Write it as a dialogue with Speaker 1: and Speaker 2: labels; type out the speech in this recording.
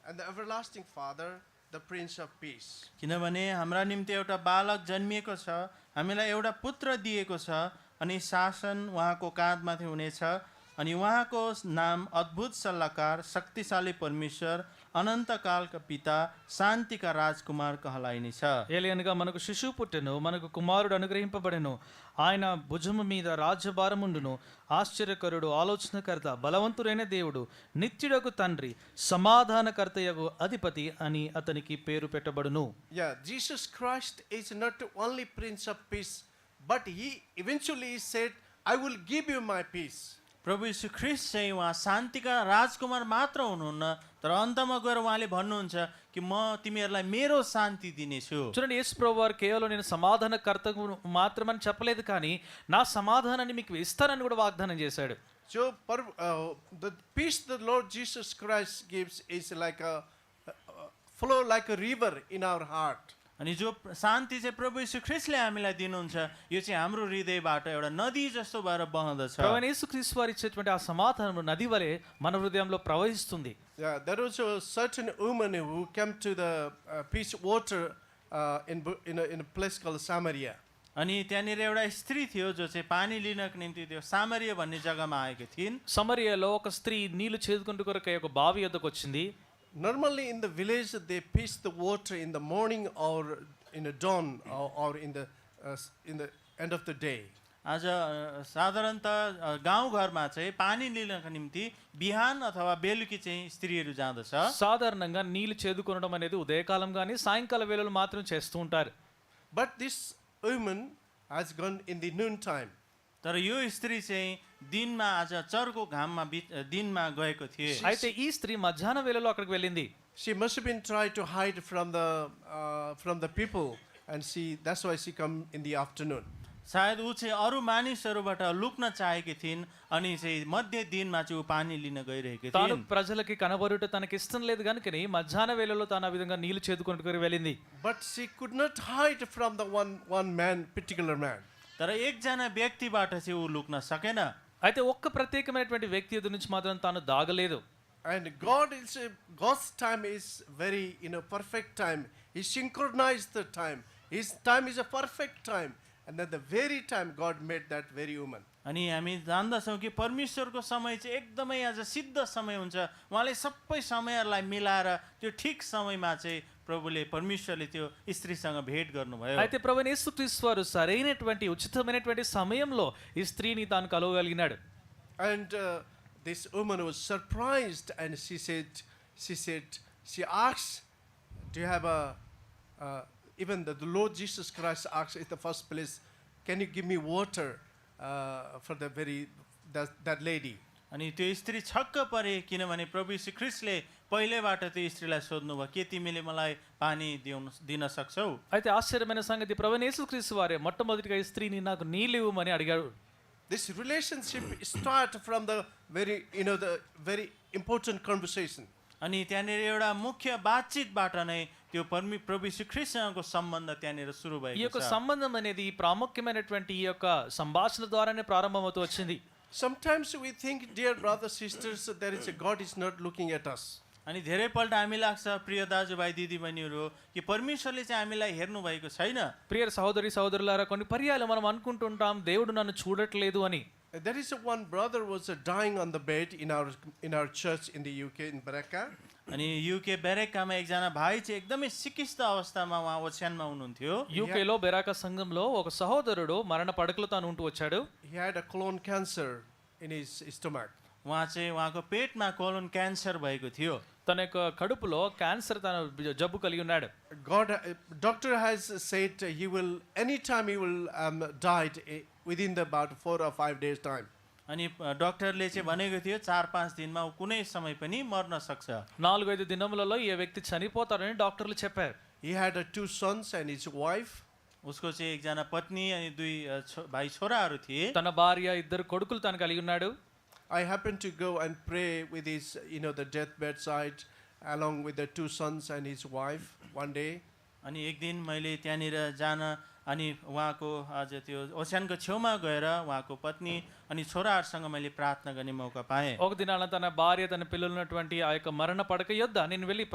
Speaker 1: and the everlasting Father, the Prince of Peace.
Speaker 2: किनभने हाम्रा निम्ति एउटा बालक जन्मिएको छ हामीलाई एउटा पुत्र दिएको छ अनि शासन उहाँको काँधमाथि हुनेछ अनि उहाँको नाम अद्भुत सल्लाहकार शक्तिशाली परमेश्वर अनन्तकालका पिता शान्तिका राजकुमार कहलाइनेछ
Speaker 3: ఏలియనగా మనకు శిశువు పుట్టెను మనకు కుమారుడు అనుగ్రహింపబడెను ఆయన భుజము మీద రాజ్యభారముండును ఆశ్చర్యకరుడు ఆలోచనకర్త బలవంతుడైన దేవుడు నిత్యుడకు తండ్రి సమాధానకర్తయగు అధిపతి అని అతనికి పేరు పెట్టబడును
Speaker 1: Yeah, Jesus Christ is not only Prince of Peace, but he eventually said, I will give you my peace.
Speaker 2: प्रभु यीशु ख्रिस्ट चाहिँ उहाँ शान्तिका राजकुमार मात्र हुनुहुन्न तर अन्तमा गएर उहाँले भन्नुहुन्छ कि म तिमीहरूलाई मेरो शान्ति दिनेछु
Speaker 3: చూడండి యేసు ప్రభు వారు కేవలం నేను సమాధానకర్త మాత్రమని చెప్పలేదు కానీ నా సమాధానాన్ని మీకు ఇస్తానని కూడా వాగ్దానం చేశాడు
Speaker 1: So, per, uh, the peace the Lord Jesus Christ gives is like a uh, flow like a river in our heart.
Speaker 2: अनि जो प्र- शान्ति चाहिँ प्रभु यीशु ख्रिस्टले हामीलाई दिनुहुन्छ यो चाहिँ हाम्रो हृदयबाट एउटा नदी जस्तो भएर बहँदछ
Speaker 3: ప్రవణ యేసు క్రీస్తు వారు ఇచ్చేటువంటి ఆ సమాధానం నది వలె మన హృదయంలో ప్రవహిస్తుంది
Speaker 1: Yeah, there was a certain woman who came to the uh, peace water uh, in, Bu- in, a, in a place called Samaria.
Speaker 2: अनि त्यहाँनिर एउटा स्त्री थियो जो चाहिँ पानी लिनको निम्ति त्यो सामर्य भन्ने जग्गामा आएकी थिइन्
Speaker 3: సమరియలో ఒక స్త్రీ నీళ్లు చేదుకుంటూ కొరకై ఒక బావి యొద్దకు వచ్చింది
Speaker 1: Normally in the village, they piece the water in the morning or in the dawn or, or in, the, uh, s- in the end of the day.
Speaker 2: आज अ, साधारणत अ, गाउँघरमा चाहिँ पानी लिनको निम्ति बिहान अथवा बेलुकी चाहिँ स्त्रीहरू जाँदछ
Speaker 3: సాధారణంగా నీళ్లు చేదుకొనడం అనేది ఉదయకాలం కానీ సాయంకాల వేళలు మాత్రం చేస్తూ ఉంటారు
Speaker 1: But this woman has gone in the noontime.
Speaker 2: तर यो स्त्री चाहिँ दिनमा आज चर्को घाममा बिच अ, दिनमा गएको थिए
Speaker 3: అయితే ఈ స్త్రీ మధ్యాహ్న వేళలో అక్కడికి వెళ్ళింది
Speaker 1: She must have been trying to hide from the, uh, from the people, and she, that's why she come in the afternoon.
Speaker 2: सायद ऊ चाहिँ अरू मानिसहरूबाट लुक्न चाहेकी थिइन् अनि चाहिँ मध्य दिनमा चाहिँ ऊ पानी लिन गइरहेकी
Speaker 3: తాను
Speaker 2: थिइन्
Speaker 3: ప్రజలకి కనబరుట తనకి ఇష్టం లేదు కనుకని మధ్యాహ్న వేళలో తాను ఆ విధంగా నీళ్లు చేదుకుంటూ వెళ్ళింది
Speaker 1: But she could not hide from the one, one man, particular man.
Speaker 2: तर एकजना व्यक्तिबाट चाहिँ ऊ लुक्न सकेन
Speaker 3: అయితే ఒక్క ప్రత్యేకమైనటువంటి వ్యక్తి ఎదురు నుంచి మాత్రం తాను దాగలేదు
Speaker 1: And God is God's time is very you know perfect time. He synchronized the time. His time is a perfect time. And at the very time God made that very woman.
Speaker 2: अनि हामी जान्दछौँ कि परमेश्वरको समय चाहिँ एकदमै आज सिद्ध समय हुन्छ उहाँले सबै समयहरूलाई मिलाएर त्यो ठिक समयमा चाहिँ प्रभुले परमेश्वरले त्यो स्त्रीसँग भेट गर्नुभयो
Speaker 3: అయితే ప్రభు యేసుక్రీస్తు వారు సరైనటువంటి ఉచితమైనటువంటి సమయంలో ఈ స్త్రీని తాను కలవగలిగినాడు
Speaker 1: And uh, this woman was surprised and she said she said she asked, Do you have a uh, even the, the Lord Jesus Christ asked in the first place, Can you give me water uh, for the very that, that lady?
Speaker 2: अनि त्यो स्त्री छक्क परे किनभने प्रभु श्री ख्रिस्टले पहिल्यैबाट त्यो स्त्रीलाई सोध्नुभयो के तिमीले मलाई पानी दिउन दिन सक्छौ
Speaker 3: అయితే ఆశ్చర్యమైన సంగతి ప్రభు యేసుక్రీస్తు వారే మొట్టమొదటిగా ఈ స్త్రీని నాకు నీళ్ళు ఇవ్వమని అడిగాడు
Speaker 1: this relationship start from the very you know the very important conversation
Speaker 2: अनि त्यहाँनिर एउटा मुख्य बातचितबाट नै त्यो परमि प्रभु श्री ख्रिस्टसँगको सम्बन्ध त्यहाँनिर सुरु
Speaker 3: ఈ
Speaker 2: भएको
Speaker 3: యొక్క
Speaker 2: छ
Speaker 3: సంబంధం అనేది ఈ ప్రాముఖ్యమైనటువంటి ఈ యొక్క సంభాషణ ద్వారానే ప్రారంభమవుతూ వచ్చింది
Speaker 1: sometimes we think dear brothers sisters there is a god is not looking at us
Speaker 2: अनि धेरैपल्ट हामी लाग्छ प्रिय दाजुभाइ दिदीबहिनीहरू कि परमेश्वरले चाहिँ हामीलाई हेर्नुभएको छैन
Speaker 3: ప్రియ సహోదరి సహోదరులారా కొన్ని పర్యాలు మనం అనుకుంటుంటాం దేవుడు నన్ను చూడట్లేదు అని
Speaker 1: there is a one brother was uh, dying on the bed in our in our church in the uk in baraka
Speaker 2: अनि युके बेरेकामा एकजना भाइ चाहिँ एकदमै सिकिस्त अवस्थामा उहाँ ओछ्यानमा हुनुहुन्थ्यो
Speaker 3: యూకేలో బెరాక సంఘంలో ఒక సహోదరుడు మరణ పడకలో తాను ఉంటూ వచ్చాడు
Speaker 1: he had a colon cancer in his stomach
Speaker 2: उहाँ चाहिँ उहाँको पेटमा कोलोन क्यान्सर भएको थियो
Speaker 3: తన యొక్క కడుపులో క్యాన్సర్ తన జబ్బు కలిగి ఉన్నాడు
Speaker 1: god uh, doctor has said he will anytime he will um, died uh, within the about 4 or 5 days time
Speaker 2: अनि अ, डाक्टरले चाहिँ भनेको थियो चार पाँच दिनमा ऊ कुनै समय पनि मर्न सक्छ
Speaker 3: నాలుగైదు దినములలో ఈ వ్యక్తి చనిపోతారని డాక్టర్లు చెప్పారు
Speaker 1: he had uh, two sons and his wife
Speaker 2: उसको चाहिँ एकजना पत्नी अनि दुई अ, छो भाइ छोराहरू थिए
Speaker 3: తన భార్య ఇద్దరు కొడుకులు తాను కలిగి ఉన్నాడు
Speaker 1: I happened to go and pray with his, you know, the deathbed side, along with the two sons and his wife one day.
Speaker 2: अनि एक दिन मैले त्यहाँनिर जान अनि उहाँको आज त्यो ओस्यानको छेउमा गएर उहाँको पत्नी अनि छोराहरूसँग मैले प्रार्थना गर्ने मौका पाएँ
Speaker 3: ఒక దినాన తన భార్య తన పిల్లలు ఉన్నటువంటి ఆ యొక్క మరణ పడక యొద్ద నేను వెళ్ళి